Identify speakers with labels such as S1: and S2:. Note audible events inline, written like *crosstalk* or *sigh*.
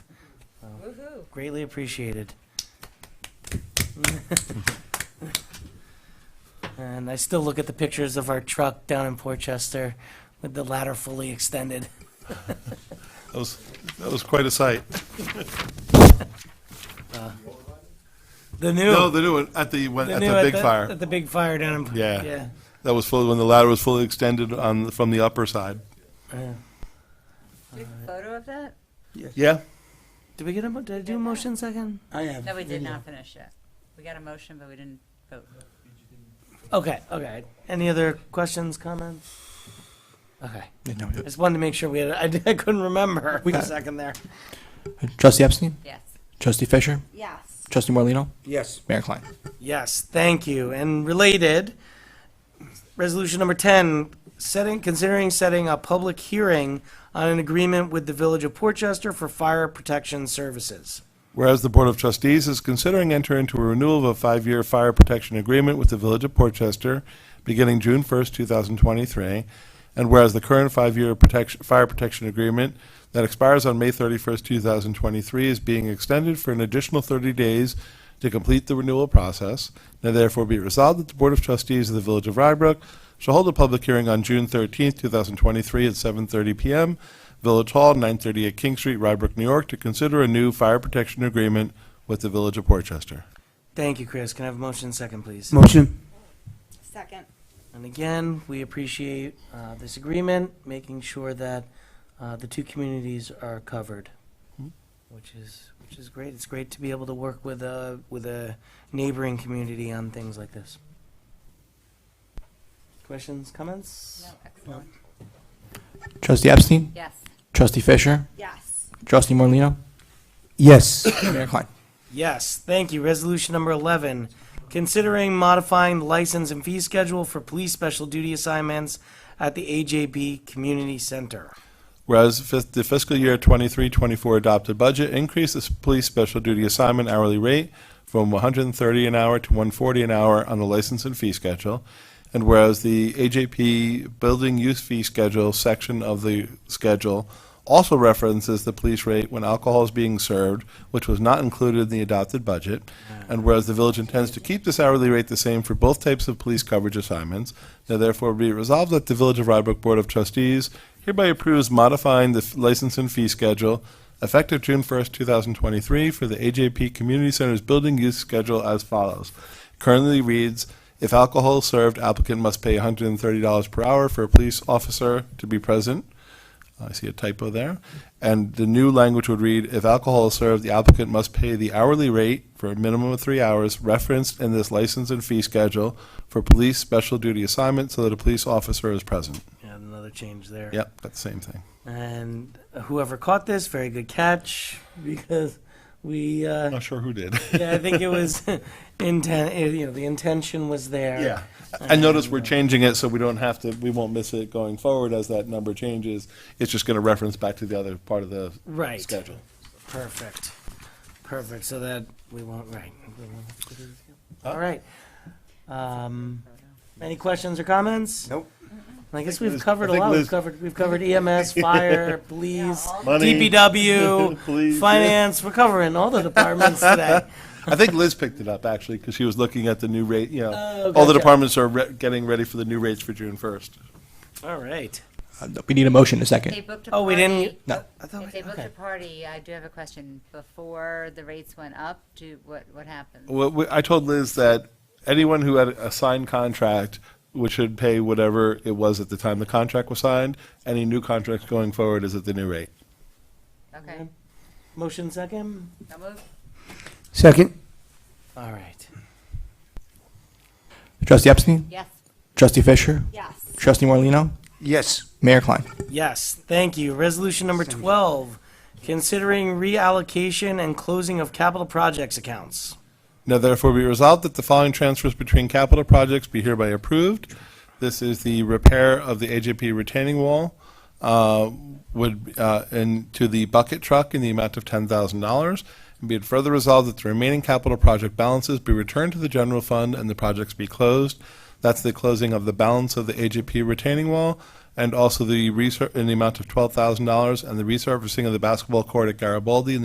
S1: Woohoo.
S2: Greatly appreciated. *laughs* and I still look at the pictures of our truck down in Portchester with the ladder fully extended. *laughs*
S3: That was, that was quite a sight.
S2: The new,
S3: No, the new one, at the, one-
S2: the
S3: at
S2: new
S3: the big fire.
S2: At the big fire down in.
S3: Yeah.
S2: Yeah.
S3: That was fully, when the ladder was fully extended on, from the upper side.
S2: yeah.
S1: Big
S2: Uh,
S1: photo of that?
S3: Yeah?
S2: Did we get a, mo- did I do a motion second?
S4: I have.
S1: No, we did
S4: video.
S1: not finish yet. We got a motion, but we didn't vote.
S2: Okay, okay. Any other questions, comments? Okay.
S5: Yeah, no,
S2: I just wanted to make sure we had, *laughs* I I couldn't remember. *laughs* We got a second there.
S5: yeah. Trustee Epstein,
S1: Yes.
S5: Trustee Fisher,
S1: Yes.
S5: Trustee Morlino,
S4: Yes,
S5: Mayor Klein.
S2: Yes, thank you. And related, resolution number 10, setting, considering setting a public hearing on an agreement with the Village of Portchester for fire protection services.
S3: Whereas the Board of Trustees is considering entering into a renewal of a five-year fire protection agreement with the Village of Portchester beginning June 1st, 2023, and whereas the current five-year protection, fire protection agreement that expires on May 31st, 2023 is being extended for an additional 30 days to complete the renewal process, now therefore be it resolved that the Board of Trustees of the Village of Rybrook shall hold a public hearing on June 13th, 2023 at 7:30 PM Village Hall, 938 King Street, Rybrook, New York, to consider a new fire protection agreement with the Village of Portchester.
S2: Thank you, Chris. Can I have a motion second, please?
S4: motion.
S1: Second.
S2: And again, we appreciate uh, this agreement, making sure that uh, the two communities are covered, which is, which is great. It's great to be able to work with a, with a neighboring community on things like this. Questions, comments?
S1: No, excellent.
S5: Trustee Epstein,
S1: Yes.
S5: Trustee Fisher,
S1: Yes.
S5: Trustee Morlino,
S4: Yes,
S5: *coughs* Mayor Klein.
S2: Yes, thank you. Resolution number 11, considering modifying the license and fee schedule for police special duty assignments at the AJB Community Center.
S3: Whereas fis- the fiscal year 23-24 adopted budget increased the s- police special duty assignment hourly rate from 130 an hour to 140 an hour on the license and fee schedule, and whereas the AJP Building Use Fee Schedule section of the schedule also references the police rate when alcohol is being served, which was not included in the adopted budget, and whereas the village intends to keep this hourly rate the same for both types of police coverage assignments, now therefore be it resolved that the Village of Rybrook Board of Trustees hereby approves modifying the f- license and fee schedule effective June 1st, 2023 for the AJP Community Center's building use schedule as follows. Currently reads, if alcohol is served, applicant must pay $130 per hour for a police officer to be present. I see a typo there. And the new language would read, if alcohol is served, the applicant must pay the hourly rate for a minimum of three hours referenced in this license and fee schedule for police special duty assignment so that a police officer is present.
S2: Yeah, another change there.
S3: Yep, that's the same thing.
S2: And whoever caught this, very good catch, because we, uh,
S3: *laughs* Not sure
S2: *laughs*
S3: who did.
S2: yeah, I think it was intent, you know, the intention was there.
S3: Yeah. I notice we're changing it so we don't have to, we won't miss it going forward as that number changes. It's just going to reference back to the other part of the
S2: Right.
S3: schedule.
S2: Perfect. Perfect, so that we won't, right. we won't have to do this again. All right. Um, any questions or comments?
S4: Nope.
S2: I guess
S3: think
S2: we've
S3: Liz-
S2: covered
S3: I
S2: a
S3: think
S2: lot. We've
S3: Liz-
S2: covered, we've covered
S3: *laughs*
S2: EMS, fire, police,
S1: all
S3: Money.
S2: DPW,
S3: *laughs* Police, yeah.
S2: finance. We're covering all the
S3: *laughs*
S2: departments today.
S3: I think Liz picked it up actually because she was looking at the new rate, you know,
S2: Oh,
S3: all the
S2: gotcha.
S3: departments are re- getting ready for the new rates for June first.
S2: All right.
S5: Uh, We need a motion in a
S1: They
S5: second.
S1: booked a
S2: Oh, we
S1: party.
S2: didn't,
S5: No.
S2: I thought
S1: If
S2: we-
S1: they booked
S2: okay.
S1: a party, I do have a question. Before the rates went up, do, what, what
S2: Oh.
S1: happened?
S3: Well, we- I told Liz that anyone who had a signed contract would should pay whatever it was at the time the contract was signed. Any new contracts going forward is at the new rate.
S1: Okay.
S2: Motion second?
S1: So moved?
S4: second.
S2: All right.
S5: Trustee Epstein,
S1: Yes.
S5: Trustee Fisher,
S1: Yes.
S5: Trustee Morlino,
S4: Yes,
S5: Mayor Klein.
S2: Yes, thank you. Resolution number 12, considering reallocation and closing of capital projects accounts.
S3: Now therefore be resolved that the following transfers between capital projects be hereby approved. This is the repair of the AJP retaining wall, uh, would, uh, and to the bucket truck in the amount of ten thousand dollars. And be it further resolved that the remaining capital project balances be returned to the general fund and the projects be closed. That's the closing of the balance of the AJP retaining wall and also the resur in the amount of twelve thousand dollars and the resurfacing of the basketball court at Garibaldi in the